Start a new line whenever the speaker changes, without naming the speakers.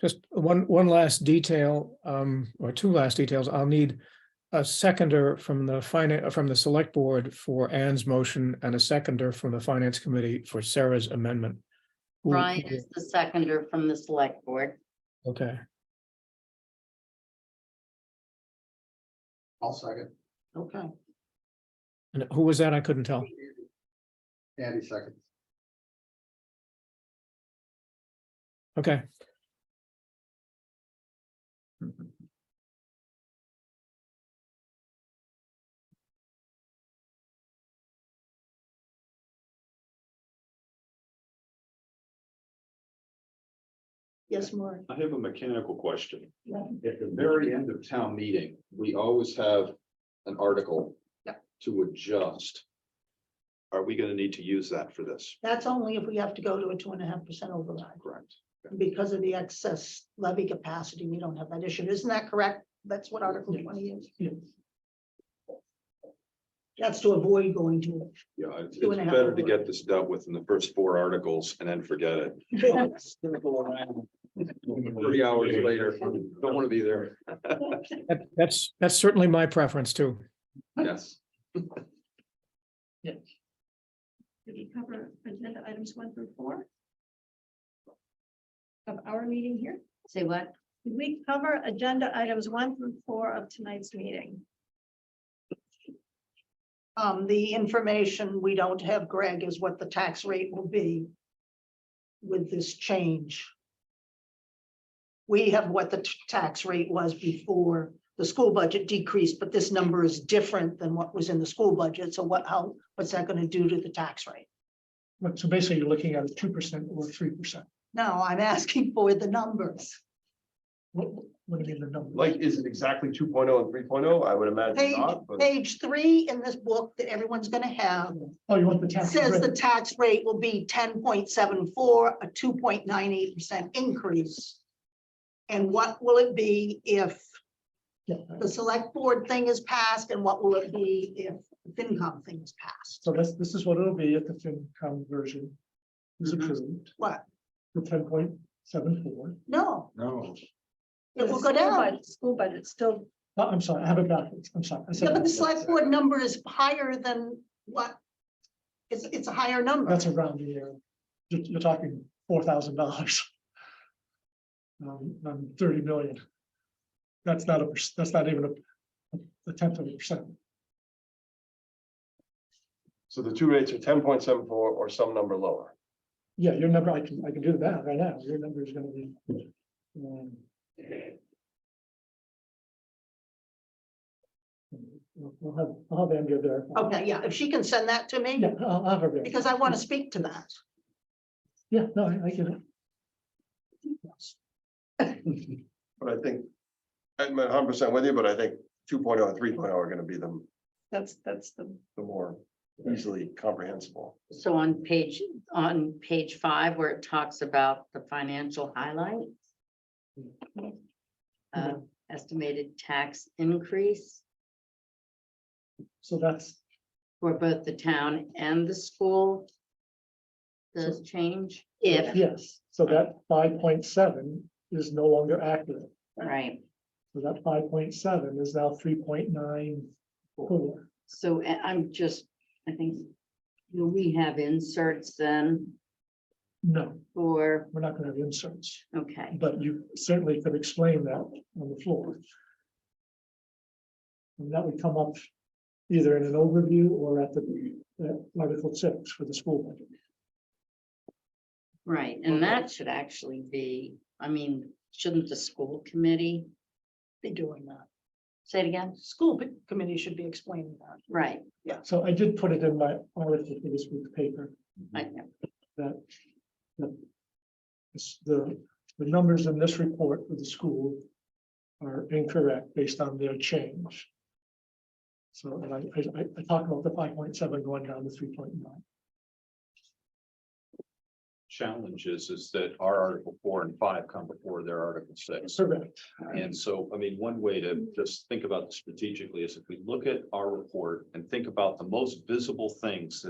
Just one, one last detail, um, or two last details. I'll need a seconder from the finance, from the select board for Anne's motion and a seconder from the finance committee for Sarah's amendment. Who-
Brian is the seconder from the select board.
Okay,
I'll second.
Okay.
and who was that? I couldn't tell.
Andy seconds.
Okay,
Yes, Maureen.
I have a mechanical question.
Yeah.
At the very end of town meeting, we always have an article.
Yeah.
To adjust. Are we gonna need to use that for this?
That's only if we have to go to a two and a half percent override.
Correct.
Because of the excess levy capacity, we don't have that issue. Isn't that correct? That's what Article twenty is. That's to avoid going to
Yeah, it's
Two and a
it's
half
better to
override.
get this dealt with in the first four articles and then forget it.
it.
Three hours later, don't wanna be there.
that, that's, that's certainly my preference too.
Yes.
Did we cover agenda items one through four? Of our meeting here?
Say what?
Did we cover agenda items one through four of tonight's meeting?
Um, the information we don't have, Greg, is what the tax rate will be with this change. We have what the t- tax rate was before the school budget decreased, but this number is different than what was in the school budget. So what, how, what's that gonna do to the tax rate?
But so basically you're looking at a two percent or three percent.
No, I'm asking for the numbers.
What, what do you mean the number?
Like, is it exactly two and three I would imagine
Page,
not, but
page three in this book that everyone's gonna have
Oh, you want the tax
says the
rate?
tax rate will be ten point seven four, a two point nine eight percent increase. And what will it be if
Yeah.
the select board thing is passed and what will it be if the FinCom thing is passed?
So that's, this is what it'll be if the FinCom version is approved,
Mm-hmm. What?
the ten point seven four.
No,
No.
it will go
School
down.
budget- School budget still,
Oh, I'm sorry, I have it backwards. I'm sorry. I said
Yeah, but the
that.
select board number is higher than what? It's, it's a higher number.
That's around the year. You're, you're talking four thousand dollars. Um, um, thirty million. That's not a, perc- that's not even a, a tenth of a percent.
so the two rates are ten point seven four or some number lower.
Yeah, your number, I can, I can do that right now. Your number is gonna be. um, I'll have, I'll have Andrea there.
Okay, yeah, if she can send that to me,
Yeah, I'll I'll have her there.
because I want to speak to that.
Yeah, no, I I get it.
But I think, I'm a hundred percent with you, but I think two oh and three are gonna be the,
that's, that's the,
the more easily comprehensible.
So on page, on page five where it talks about the financial highlight. uh, Estimated tax increase
So that's,
for both the town and the school. Does change if,
yes, so that five point seven is no longer accurate.
right?
So that five point seven is now three point nine four.
So I- I'm just, I think, do we have inserts then
No,
for,
we're not gonna have inserts,
okay,
but you certainly could explain that on the floor. And that would come up either in an overview or at the, at Article six for the school budget.
right, and that should actually be, I mean, shouldn't the school committee
Be doing that.
say it again?
School committee should be explaining that.
Right,
So I did put it in my article for this week's paper,
I,
that. that this- The, the numbers in this report for the school are incorrect based on their change. So, and I, I, I- I talked about the five point seven going down to three point nine.
Challenge is, is that our article four and five come before their article six.
Correct,
And so, I mean, one way to just think about this strategically is if we look at our report and think about the most visible things that